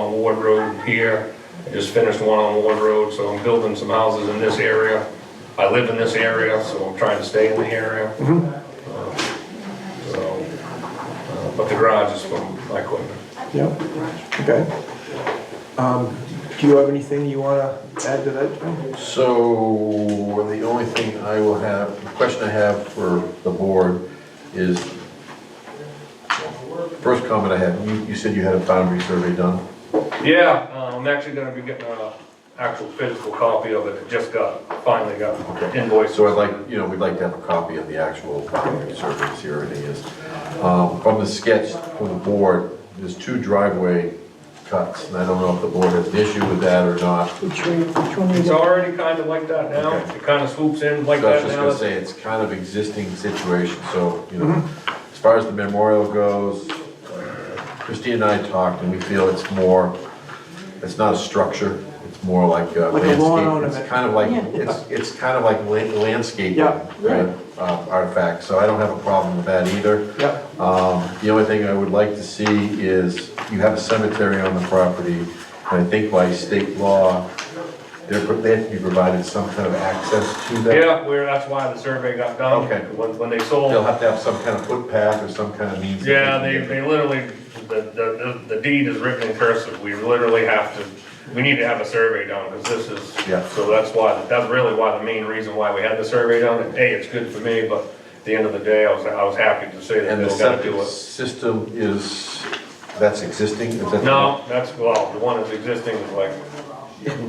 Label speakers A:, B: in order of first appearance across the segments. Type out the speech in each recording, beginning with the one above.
A: on Ward Road here. I just finished one on Ward Road, so I'm building some houses in this area. I live in this area, so I'm trying to stay in the area.
B: Mm-hmm.
A: Uh, So, uh, but the garage is for my equipment.
C: Yeah, okay. Um, Do you have anything you wanna add to that, John?
B: So, the only thing I will have, the question I have for the board is, first comment I had, you, you said you had a boundary survey done?
A: Yeah, uh, I'm actually gonna be getting an actual physical copy of it, I just got, finally got invoice.
B: So I'd like, you know, we'd like to have a copy of the actual boundary surveys here, it is. Um, From the sketch from the board, there's two driveway cuts, and I don't know if the board has an issue with that or not.
D: Which way, which one is
A: It's
D: it?
A: already kinda like that now,
B: Okay.
A: it kinda swoops in like
B: So I was
A: that
B: just
A: now.
B: gonna say, it's kind of existing situation, so, you know, as far as the memorial goes, Christine and I talked, and we feel it's more, it's not a structure, it's more like uh,
C: Like a lawn
B: landscape.
C: ornament.
B: It's kind of like, it's, it's kind of like la- landscape
C: Yeah.
B: kind of, uh, artifact, so I don't have a problem with that either.
C: Yeah,
B: Um, The only thing I would like to see is, you have a cemetery on the property, and I think by state law, they're, they have to be provided some kind of access to that.
A: Yeah, where, that's why the survey got done.
B: Okay.
A: When, when they
B: They'll
A: sold,
B: have to have some kind of footpath or some kind of means. of
A: yeah, they,
B: getting
A: they literally, the, the, the deed is written in cursive, we literally have to, we need to have a survey done, because this is.
B: Yeah.
A: So that's why, that's really why, the main reason why we had the survey done, and A, it's good for me, but at the end of the day, I was, I was happy to say
B: there.
A: that
B: And the
A: they gotta do
B: septic
A: it.
B: system is, that's existing? Is that-
A: No, that's, well, the one that's existing is like,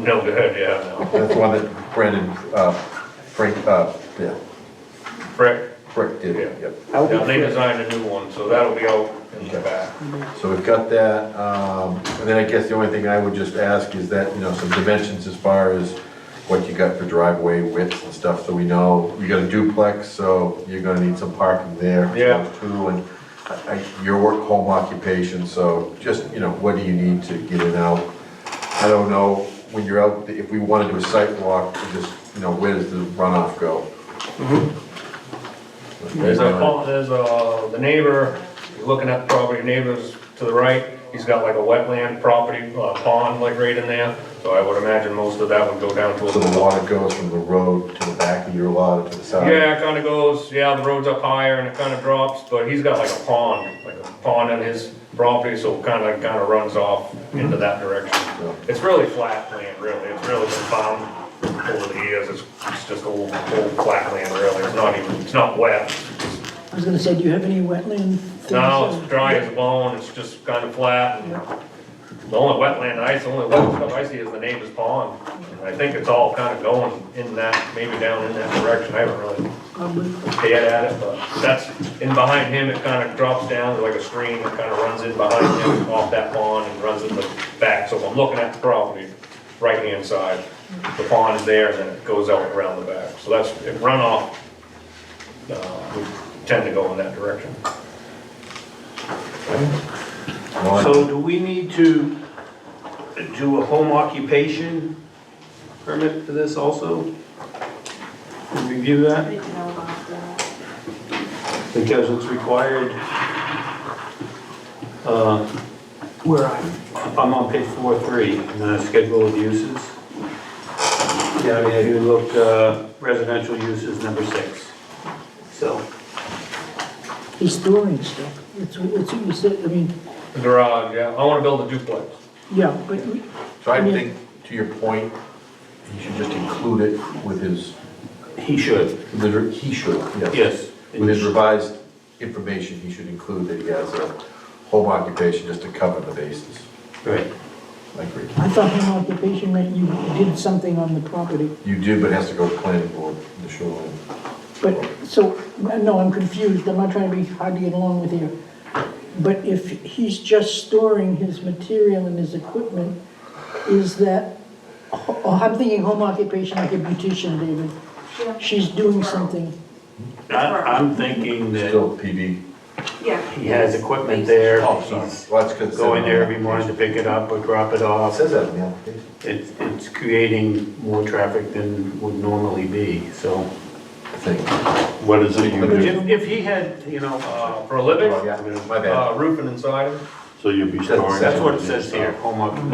A: no good, yeah,
B: That's the one that Brandon, uh, Frank, uh, yeah,
A: no. Frick,
B: Frick did,
A: Yeah.
B: yep.
C: I'll be
A: now they
C: clear.
A: designed a new one, so that'll be out in the back.
B: So we've got that, um, and then I guess the only thing I would just ask is that, you know, some dimensions as far as what you got for driveway widths and stuff, so we know, you got a duplex, so you're gonna need some parking there.
A: Yeah.
B: Too, and I, I- your work home occupation, so just, you know, what do you need to get in out? I don't know, when you're out, if we wanna do a site walk, we just, you know, where does the runoff go?
A: There's a, pump- there's a, the neighbor, you're looking at the property, neighbors to the right, he's got like a wetland property, uh, pond like right in there. So I would imagine most of that would go down to
B: So the
A: a.
B: water goes from the road to the back of your lot to the side?
A: Yeah, it kinda goes, yeah, the road's up higher and it kinda drops, but he's got like a pond, like a pond on his property, so it kinda, kinda runs off into that direction. It's really flat land, really, it's really been found over the years, it's, it's just old, old flat land, really, it's not even, it's not wet.
D: I was gonna say, do you have any wetland? things? Uh,
A: No, it's dry as a bone, it's just kind of flat. and The only wetland ice, the only wet stuff I see is the neighbor's pond. And I think it's all kind of going in that, maybe down in that direction, I haven't really
D: Probably.
A: peered at it, but that's, in behind him, it kind of drops down like a stream, it kind of runs in behind him, off that pond and runs in the back, so I'm looking at the property, right-hand side. The pond is there and then it goes out around the back, so that's, if runoff, uh, we tend to go in that direction.
B: Well,
E: So do we need to do a home occupation permit for this also? And Review that, because it's required. Uh,
C: Where are you?
E: I'm on page four, three, in the schedule of uses. Yeah, I mean, if you look, uh, residential uses, number six. So,
D: He's storing stuff. It's, it's, you said, I mean,
A: The Garage, yeah, I wanna build a duplex.
D: yeah, but we-
B: So I think, to your point, he should just include it with his,
E: he should,
B: liter- he should, yes.
E: yes.
B: With his revised information, he should include that he has a home occupation just to cover the bases.
E: Right.
B: I agree.
D: I thought home occupation meant you did something on the property.
B: You do, but it has to go to planning board, the shoreline.
D: But, so, no, I'm confused. I'm not trying to be hard to get along with you. But if he's just storing his material and his equipment, is that, oh, I'm thinking home occupation like a beautician, David. She's doing something.
E: I, I'm thinking that
B: Still PB.
F: Yeah.
E: he has equipment there.
B: Oh, sorry. Well, that's good.
E: go in there every morning to pick it up or drop it
B: It
E: off.
B: says that in the application.
E: It's, it's creating more traffic than would normally be, so.
B: I think.
G: What is it you
E: But
G: do?
E: if, if he had, you know, uh,
A: Uh, For a living,
B: Oh, yeah, my bad.
A: uh, roofing inside of it.
G: So you'll be
B: That's-
G: storing.
E: that's what it says here, home occupation.